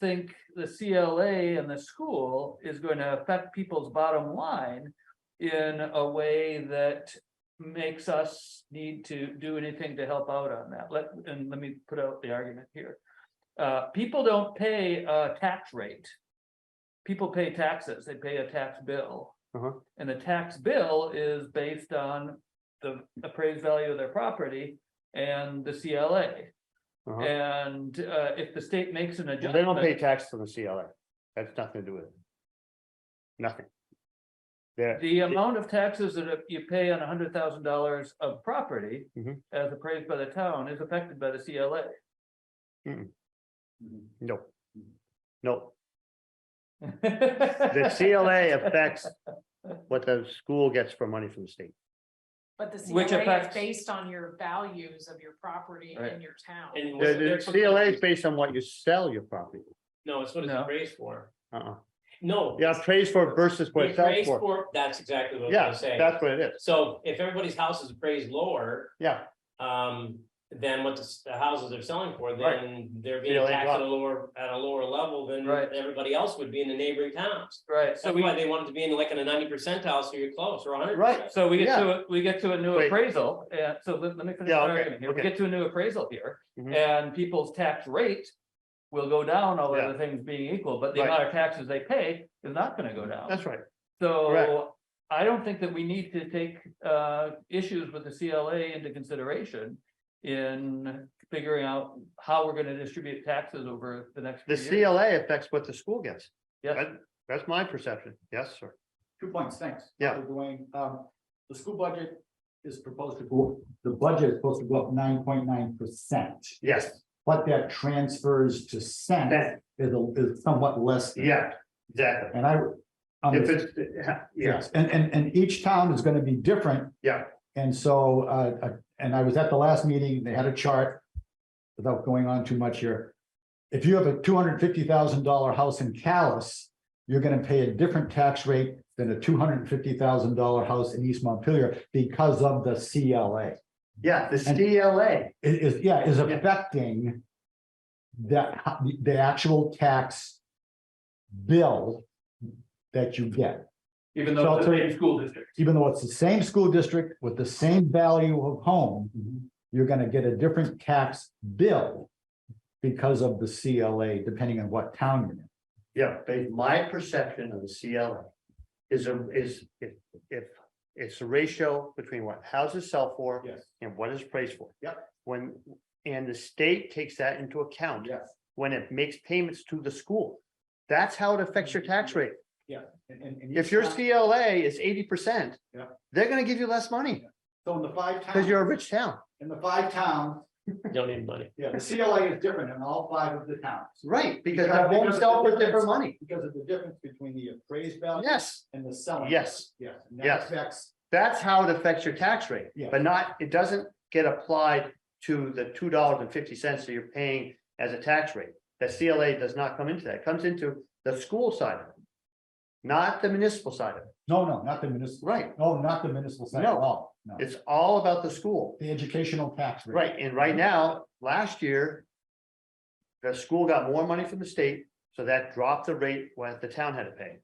think the CLA and the school is going to affect people's bottom line in a way that makes us need to do anything to help out on that. Let, and let me put out the argument here. Uh, people don't pay a tax rate. People pay taxes. They pay a tax bill. Uh-huh. And the tax bill is based on the appraised value of their property and the CLA. Uh-huh. And uh, if the state makes an Well, They don't pay adjustment, tax on the CLA. That's nothing to do with it. Nothing. There, the amount of taxes that you pay on hundred thousand dollars of property. Mhm. As appraised by the town is affected by the CLA. Mm. no. No, the CLA affects what the school gets for money from the state. But the Which CLA affects- is based on your values of your property Right. and your town. And The, what's the their CLA is complaint? based on what you sell your property. No, it's what it's No. appraised for. Uh-uh. No. Yeah, appraised for versus what The it sells appraised for. for, that's exactly what I Yeah, was saying. that's what it is. So if everybody's house is appraised lower, Yeah, um, than what the, s- the houses are selling for, Right. then they're being Feel it taxed up. at a lower, at a lower level than Right. everybody else would be in the neighboring towns. Right, so That's we, why they wanted to be in like in a ninety percentile, so you're close, or hundred Right. percent. so we get to, a- we get to a new Wait. appraisal, and so let let me finish. Yeah, my okay, argument here. We okay. get to a new appraisal here, Mhm. and people's tax rate. Will go down, all Yeah. other things being equal, but the Right. amount of taxes they pay is not gonna go down. that's right. So I don't think that we need to take uh issues with the CLA into consideration. In figuring out how we're gonna distribute taxes over the next. The few years. CLA affects what the school gets. Yeah. That- That's my perception. Yes, sir. Two points, thanks. Yeah. Dr. Dwayne, um, the school budget is proposed to go, the budget is supposed to go up nine point nine percent. Yes, What that transfers to cent Cent. is, a- is somewhat less. than- yeah, exactly. And I. um, If it's, yeah, Yes, and, and, and each town is gonna be different. Yeah. And so, uh, uh, and I was at the last meeting, they had a chart. Without going on too much here. If you have a two hundred fifty thousand dollar house in Callis, you're gonna pay a different tax rate than a two hundred fifty thousand dollar house in East Montpelier because of the CLA. yeah, the CLA. It is, yeah, is Yeah. affecting that, the- the actual tax bill that you get Even though it's the same school district. even though it's the same school district with the same value of home, you're gonna get a different tax bill because of the CLA, depending on what town you're in. Yeah, but my perception of the CLA is a, is if, if it's the ratio between what houses sell for Yes. and what is appraised for. Yep. When, and the state takes that into account Yes, when it makes payments to the school. That's how it affects your tax rate. and, and. and If each your town- CLA is eighty percent, Mm-hmm. Yeah. they're gonna give you less money So in the five because you're a towns, rich town, in the five towns, Don't need money. yeah, the CLA is different in all five of the towns. right? Because Because- I won't because sell for it's- different money. Because of the difference between the appraised value Yes, and the selling. Yes. value. Yes. and that Yes. affects- that's how it affects your tax rate. Yeah. But not, it doesn't get applied to the two dollars and fifty cents that you're paying as a tax rate. The CLA does not come into that, It comes into the school side of it. Not the municipal side of it, No, no, not the municipal, right? no, not the municipal side at No. all, no, It's all about the school, the educational tax rate. right? And right now, last year. The school got more money from the state, so that dropped the rate what the town had to pay.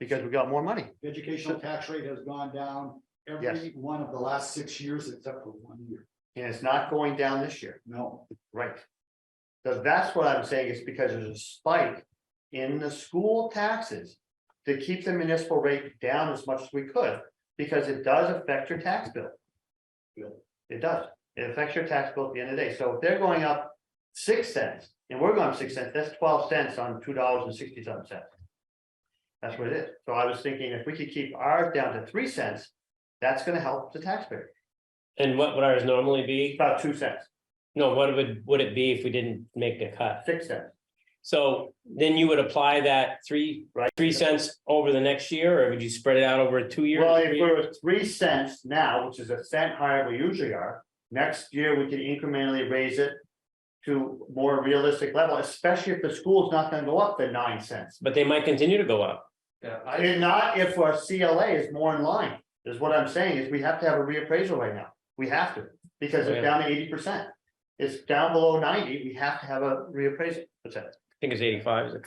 Because we got more money, The educational tax rate has gone down every Yes. one of the last six years except for one year. and it's not going down this year. No, Right. So that's what I'm saying, is because there's a spike in the school taxes to keep the municipal rate down as much as we could, because it does affect your tax bill. It does, it affects your tax bill at the end of the day, so if they're going up six cents, and we're going up six cents, that's twelve cents on two dollars and sixty something cents. That's what it is, so I was thinking if we could keep ours down to three cents, that's gonna help the taxpayer, And what would ours normally be? about two cents, No, what would, would it be if we didn't make the cut? six cents. So then you would apply that three, Right. three cents over the next year, or would you spread it out over a two year? Well, if we're at three cents now, which is a cent higher we usually are, next year we can incrementally raise it. To more realistic level, especially if the school's not gonna go up to nine cents. But they might continue to go up. Yeah, I mean, not if our CLA is more in line, is what I'm saying, is we have to have a reappraisal right now. We have to, because it's down to eighty percent. It's down below ninety, we have to have a reappraisal. What's that? think it's eighty-five, is it?